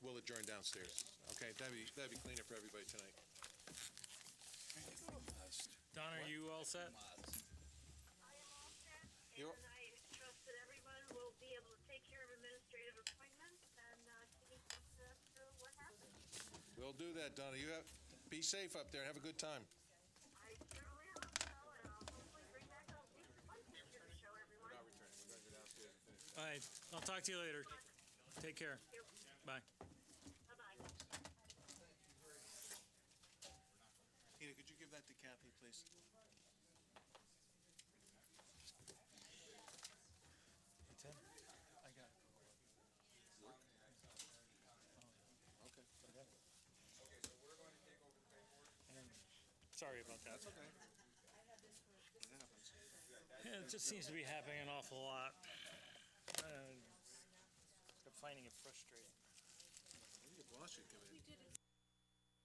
downstairs. Okay, that'd be, that'd be cleaner for everybody tonight. Don, are you all set? I am all set, You're- and I trust that everyone will be able to take care of administrative appointments and uh, see us through what happens. We'll do that, Donna. You have, be safe up there and have a good time. I certainly hope so, and I'll hopefully bring back a decent one picture to show everyone. All right, I'll talk to you later. Take care. Bye. Bye-bye. Tina, could you give that to Kathy, please? Ten? I got it. Okay. Sorry about that. okay. It happens. Yeah, it just seems to be happening an awful lot. Uh, I'm finding it frustrating.